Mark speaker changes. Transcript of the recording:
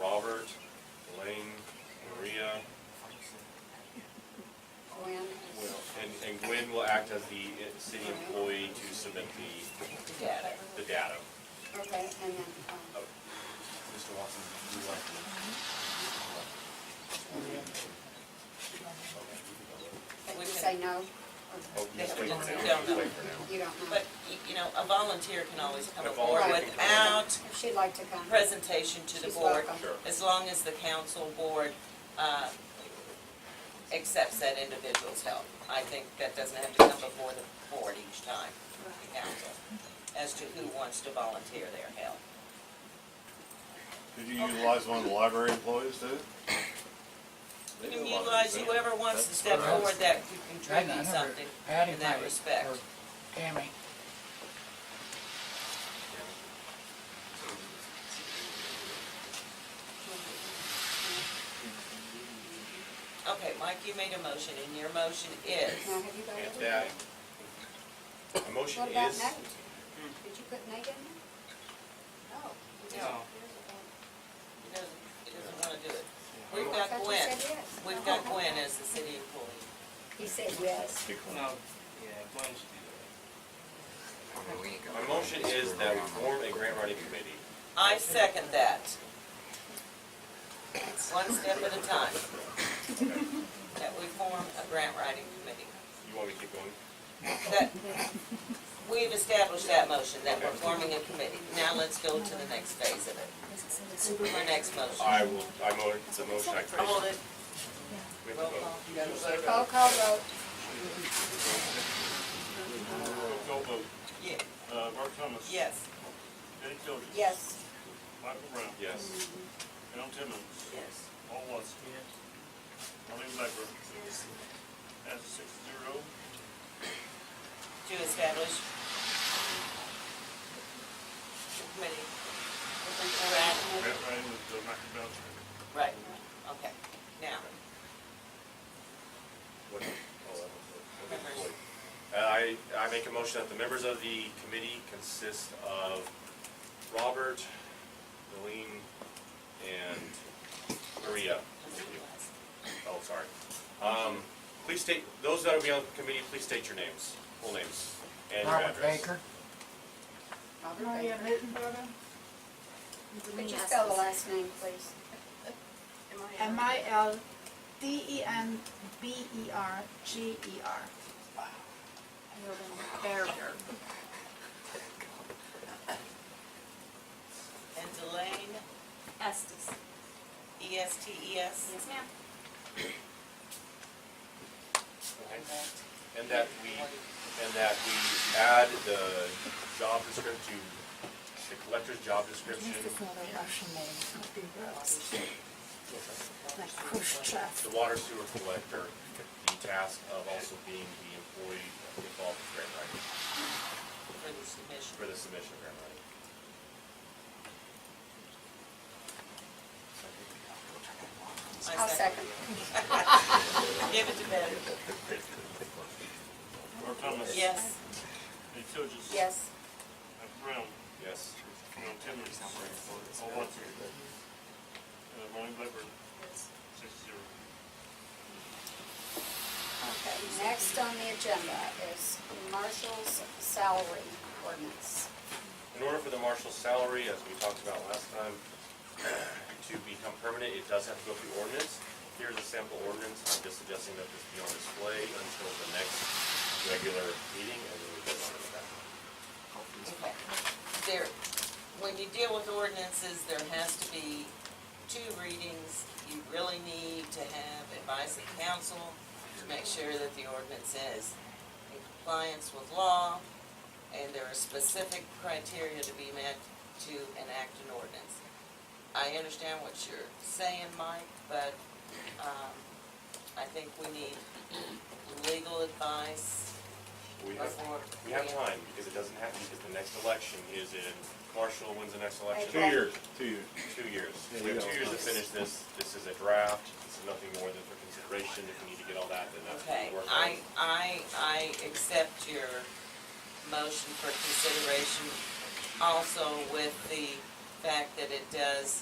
Speaker 1: Oh,
Speaker 2: contact of the uh, city employee to submit the,
Speaker 3: data.
Speaker 2: the data.
Speaker 1: Okay, and then, um,
Speaker 4: Mr. Watson, you like to?
Speaker 1: but
Speaker 3: We
Speaker 1: you
Speaker 3: can-
Speaker 1: say no? or
Speaker 2: Oh, yes, wait for now.
Speaker 3: Don't know.
Speaker 2: Wait for now.
Speaker 1: You don't know?
Speaker 3: But, y- you know, a volunteer can always come
Speaker 2: A
Speaker 3: aboard
Speaker 1: volunteer can come
Speaker 2: aboard.
Speaker 3: without
Speaker 1: If she'd like to come.
Speaker 3: presentation to the
Speaker 1: She's
Speaker 3: board,
Speaker 1: welcome.
Speaker 2: Sure.
Speaker 3: as long as the council board uh, accepts that individual's help. I think that doesn't have to come before the board each time, the council, as to who wants to volunteer their help.
Speaker 5: Could you utilize one of the library employees too?
Speaker 3: You can utilize whoever wants to step
Speaker 6: That's-
Speaker 3: forward that could
Speaker 6: Right now,
Speaker 3: contribute
Speaker 6: I never-
Speaker 3: something
Speaker 6: Patty
Speaker 3: in that
Speaker 6: might,
Speaker 3: respect.
Speaker 6: or Tammy,
Speaker 3: Okay, Mike, you made a motion, and your motion is,
Speaker 1: Now, have you got it?
Speaker 2: And that, a motion
Speaker 1: What about
Speaker 2: is,
Speaker 1: Nate? Did you put Nate in there? No. you just-
Speaker 3: No. he doesn't, he doesn't want to do it. We've
Speaker 1: I
Speaker 3: got
Speaker 1: thought you
Speaker 3: Gwen,
Speaker 1: said yes.
Speaker 3: we've got Gwen as the city employee.
Speaker 1: He said yes.
Speaker 7: No, yeah, Glenn should do that.
Speaker 2: my motion is that we form a grant writing committee.
Speaker 3: I second that. One step at a time. That we form a grant writing committee.
Speaker 2: You want me to keep going?
Speaker 3: That, we've established that motion, that we're forming a committee. Now let's go to the next phase of it. Our next motion.
Speaker 2: I will, I mo, the motion I created.
Speaker 3: Hold it.
Speaker 2: We have
Speaker 3: Roll
Speaker 2: to vote.
Speaker 3: call.
Speaker 1: Roll call vote.
Speaker 4: Go vote.
Speaker 3: Yeah,
Speaker 4: Uh, Mark Thomas.
Speaker 3: Yes.
Speaker 4: Betty Tilden.
Speaker 3: Yes.
Speaker 4: Michael Brown.
Speaker 2: Yes.
Speaker 4: Al Timmons.
Speaker 3: Yes.
Speaker 4: Paul Watson. Marlene Blackburn. That's six zero.
Speaker 3: To establish the committee. Grant,
Speaker 4: Grant writing with uh, Michael Belcher.
Speaker 3: right, okay. Now,
Speaker 2: What- oh, that was- that was- Uh, I, I make a motion that the members of the committee consist of Robert, Delene, and Maria. Oh, sorry. Um, please state, those that will be on the committee, please state your names, full names, and your
Speaker 6: Robert
Speaker 2: address.
Speaker 6: Baker,
Speaker 1: Robert
Speaker 8: Maria
Speaker 1: Baker.
Speaker 8: Mittenberger.
Speaker 1: Could you spell the last name, please?
Speaker 8: M I L D E N B E R G E R. Berger.
Speaker 3: and Delane,
Speaker 8: Estes.
Speaker 3: E S T E S.
Speaker 8: Yes, ma'am.
Speaker 2: Okay. And that we, and that we add the job description, to the collector's job description,
Speaker 8: another Russian name, would be Rose. Like Khrushchev.
Speaker 2: the water sewer collector, the task of also being the employee involved with grant writing,
Speaker 3: for the submission.
Speaker 2: for the submission of grant writing.
Speaker 3: I
Speaker 1: I'll second.
Speaker 3: Give it to Ben.
Speaker 4: Mark Thomas.
Speaker 3: Yes.
Speaker 4: Betty Tilden.
Speaker 1: Yes.
Speaker 4: Michael Brown.
Speaker 2: Yes.
Speaker 4: Al Timmons. Paul Watson. Uh, Marlene Blackburn. Six zero.
Speaker 1: Okay, next on the agenda is Marshall's salary ordinance.
Speaker 2: In order for the marshal's salary, as we talked about last time, to become permanent, it does have to go through ordinance. Here's a sample ordinance, I'm just suggesting that this be on display until the next regular meeting, and then we vote on it back.
Speaker 3: Okay. There, when you deal with ordinances, there has to be two readings. You really need to have advice of council to make sure that the ordinance is in compliance with law, and there are specific criteria to be met to enact an ordinance. I understand what you're saying, Mike, but, um, I think we need legal advice
Speaker 2: We have,
Speaker 3: before.
Speaker 2: we have time, because it doesn't have to, because the next election is in, Marshall, when's the next election?
Speaker 1: April. Two years.
Speaker 5: two years.
Speaker 2: Two years.
Speaker 5: Yeah,
Speaker 2: We
Speaker 5: you
Speaker 2: have two
Speaker 5: don't
Speaker 2: years to
Speaker 5: know.
Speaker 2: finish this, this is a draft, this is nothing more than for consideration, if we need to get all that, then that's what
Speaker 3: Okay,
Speaker 2: we work on.
Speaker 3: I, I, I accept your motion for consideration, also with the fact that it does